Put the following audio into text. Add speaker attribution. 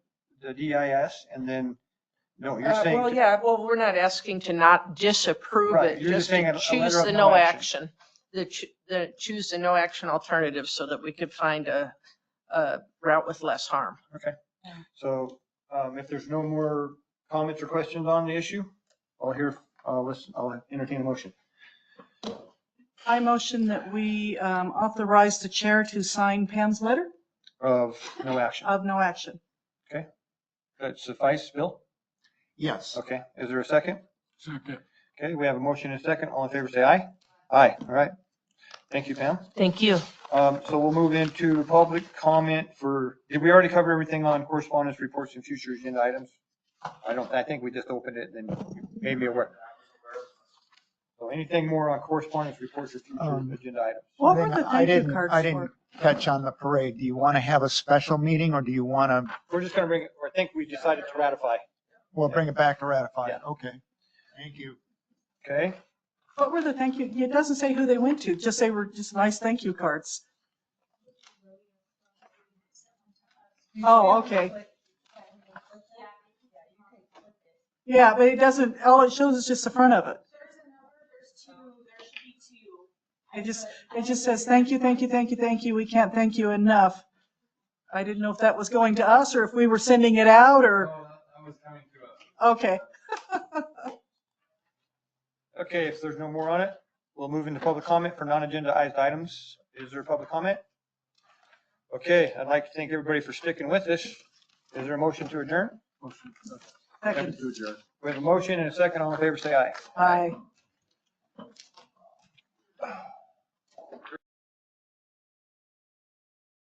Speaker 1: the DIS and then, no, you're
Speaker 2: Uh, Well,
Speaker 1: saying,
Speaker 2: yeah, well, we're not asking to not disapprove
Speaker 1: Right,
Speaker 2: it,
Speaker 1: you're just
Speaker 2: just
Speaker 1: saying a-
Speaker 2: to
Speaker 1: a
Speaker 2: choose
Speaker 1: letter of
Speaker 2: the
Speaker 1: no
Speaker 2: no
Speaker 1: action.
Speaker 2: action. The, ch- the choose the no action alternative so that we could find a, a route with less harm.
Speaker 1: so, um, if there's no more comments or questions on the issue, I'll hear, I'll listen, I'll entertain a motion.
Speaker 3: I motion that we um, authorize the chair to sign Pam's letter
Speaker 1: of no action.
Speaker 2: Uh,
Speaker 3: of no action.
Speaker 1: That suffice, Bill?
Speaker 4: Yes.
Speaker 1: Okay, is there a second?
Speaker 4: Second.
Speaker 1: Okay, we have a motion and a second. All in favor, say aye. Aye, all right. Thank you, Pam.
Speaker 2: Thank you.
Speaker 1: Um, so we'll move into public comment for, did we already cover everything on correspondence, reports, and future agenda items? I don't, I think we just opened it and made me aware. So anything more on correspondence, reports, or
Speaker 4: Um,
Speaker 1: future agenda items?
Speaker 3: What were
Speaker 4: Then
Speaker 3: the
Speaker 4: I
Speaker 3: thank you
Speaker 4: didn't-
Speaker 3: cards
Speaker 4: I
Speaker 3: for?
Speaker 4: didn't catch on the parade. Do you want to have a special meeting or do you want to,
Speaker 1: We're just gonna bring, or I think we decided to ratify,
Speaker 4: we'll bring it back to ratify it?
Speaker 1: Yeah.
Speaker 4: Okay. Thank you.
Speaker 1: okay?
Speaker 3: What were the thank you? It doesn't say who they went to, just they were just nice thank you cards. Oh, okay. Yeah, but it doesn't, all it shows is just the front of it. It just, it just says, thank you, thank you, thank you, thank you. We can't thank you enough. I didn't know if that was going to us or if we were sending it out or, okay.
Speaker 1: Okay, if there's no more on it, we'll move into public comment for non-agendized items. Is there public comment? Okay, I'd like to thank everybody for sticking with us. Is there a motion to adjourn?
Speaker 3: Second.
Speaker 1: We have a motion and a second. All in favor, say aye.
Speaker 3: Aye.